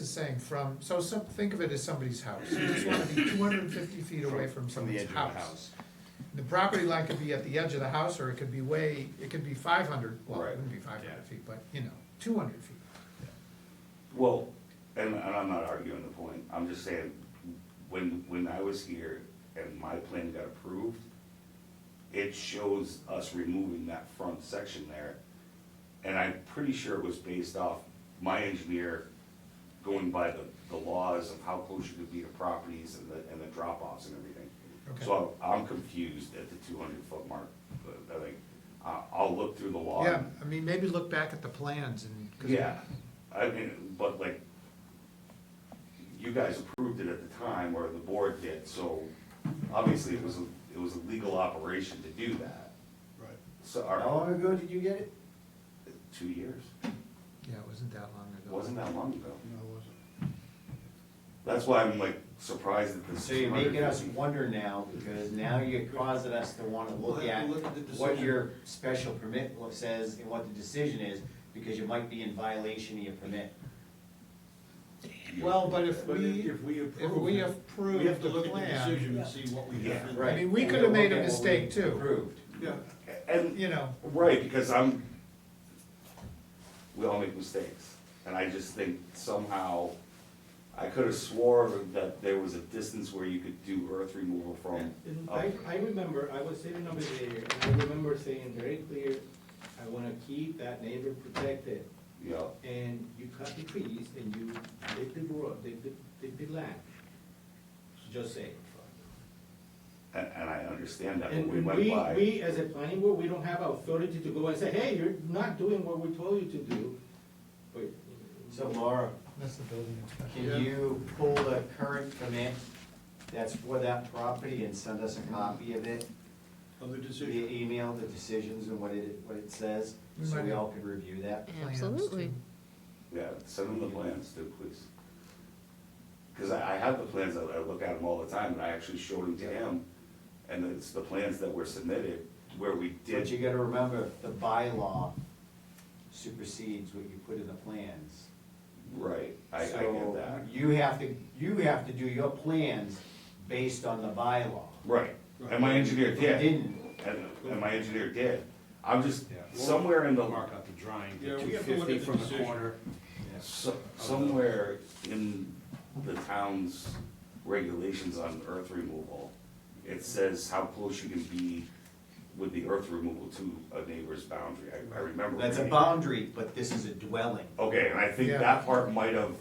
is saying from, so some, think of it as somebody's house. You just wanna be two hundred and fifty feet away from the someone's edge of the house. The property line could be at the edge of the house, or it could be way, it could be five hundred, well, it Right, wouldn't be five yeah. hundred feet, but, you know, two hundred feet. Well, and, and I'm not arguing the point, I'm just saying, when, when I was here and my plan got approved, it shows us removing that front section there, and I'm pretty sure it was based off my engineer going by the, the laws of how close you could be to properties and the, and the drop-offs and everything. Okay. So I'm I'm confused at the two hundred foot mark, but I think, I, I'll look through the law. Yeah, I mean, maybe look back at the plans and. 'cause- Yeah, I mean, but like, you guys approved it at the time, or the board did, so obviously it was, a- it was a legal operation to do that. Right. So, How our, long ago did you get it? two years, Yeah, it wasn't that long ago. wasn't that long ago. No, it wasn't. That's why I'm like surprised that this. So you're making us 250 wonder now, because now you're causing us to wanna look We'll have at to look at the what decision. your special permit lo- says and what the decision is, because you might be in violation of your permit. Well, but if But we, if we if approve. we it, approve We have to the look at the plan, decision and see what we have. in Right. mean, we And could've we'll made a look at what we mistake, too. Approved. there. Yeah, And, you know, right, because I'm, we all make mistakes, and I just think somehow, I could have swore that there was a distance where you could do earth removal from. And a I, I remember, I was sitting over there, and I remember saying very clear, I wanna keep that neighbor protected. Yeah, And you cut the trees and you dig the road, dig the, dig the land. Just say. and, and I understand that, but And we and went we, by, we, as a planning board, we don't have authority to go and say, hey, you're not doing what we told you to do. But, So Laura, that's the building can inspector. you pull the current permit that's for that property and send us a copy of it? of the Via decision. email, the decisions and what it, what it says, so we all can review that? Plans, Absolutely. too. yeah, send them the plans too, please. Cause I, I have the plans, I, I look at them all the time, and I actually showed them to him, and it's the plans that were submitted where we But you did, gotta remember, the bylaw supersedes what you put in the plans. right, I, I get So that. You have to, you have to do your plans based on the bylaw. Right, and my engineer If you did, didn't, and, and my engineer did, I'm just, Yeah. somewhere in the, Mark out the drawing, Yeah, the we two have to look fifty at the from the decision. corner. so- somewhere in the town's regulations on earth removal, it says how close you can be with the earth removal to a neighbor's boundary, I, I remember. that's a reading- boundary, but this is a dwelling. Okay, and I think Yeah. that part might have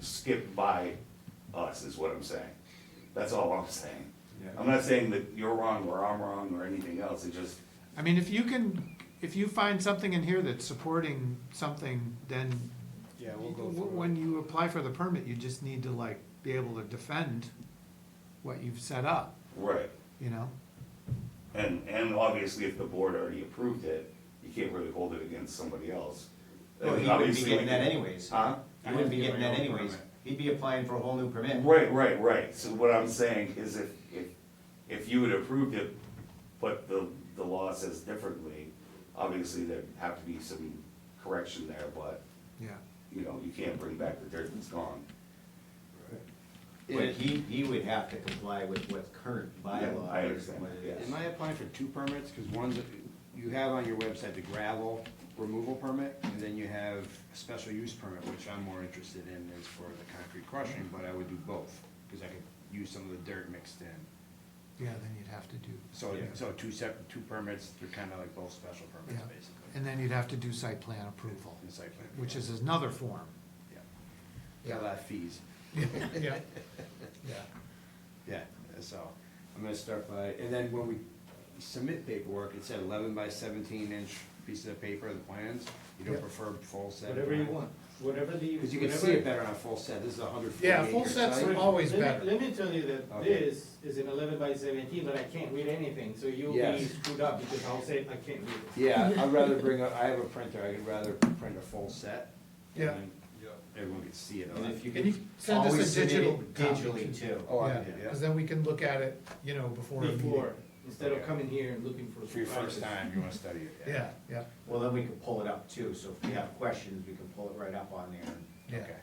skipped by us, is what I'm saying. That's all I'm saying. I'm not saying that you're wrong or I'm wrong or anything else, it just, I mean, if you can, if you find something in here that's supporting something, then Yeah, we'll go W- through. When you apply for the permit, you just need to like be able to defend what you've set up, right. you know? And, and obviously, if the board already approved it, you can't really hold it against somebody else. Well, And he wouldn't be obviously, getting that like- anyways. Huh? He wouldn't be getting that anyways. He'd be applying for a whole new permit. Right, right, right, so what I'm saying is if, if, if you had approved it, but the, the law says differently, obviously, there'd have to be some correction there, but, Yeah. you know, you can't bring back the dirt that's gone. But he, he would have to comply with what's current bylaw. I understand, what it yeah. is. Am I applying for two permits? Because one's, you have on your website the gravel removal permit, and then you have a special use permit, which I'm more interested in is for the concrete crushing, but I would do both, because I could use some of the dirt mixed in. Yeah, then you'd have to do, So, Yeah. so two separate, two permits, they're kind of like both special yeah. permits, basically. And then you'd have to do site plan approval, And site plan. which is another form. Yeah. Got a lot of fees. Yeah. Yeah, so I'm gonna start by, and then when we submit paperwork, it said eleven by seventeen inch pieces of paper, the plans. You don't Yep. prefer full set? whatever you want, whatever the. Because you can see whatever- it better on a full set, this is a hundred forty acre Yeah, site. full sets are Wait, always let me- better. Let me tell you that Okay. this is an eleven by seventeen, but I can't read anything, so you'll be Yes. screwed up because I'll say I can't read it. Yeah, I'd rather bring a, I have a printer, I'd rather print a full set. and Yeah. then Yeah. Everyone can see it. And if you Can could you send us always a submit digital it copy? digitally too. Oh, I Yeah, did, cause yeah. then we can look at it, you know, before. a meeting. Before, instead of Okay. coming here and looking for. For your surprises. first time, you wanna study it, yeah. Yeah, yeah, Well, then we can pull it up too, so if we have questions, we can pull it right up on there. yeah. Okay.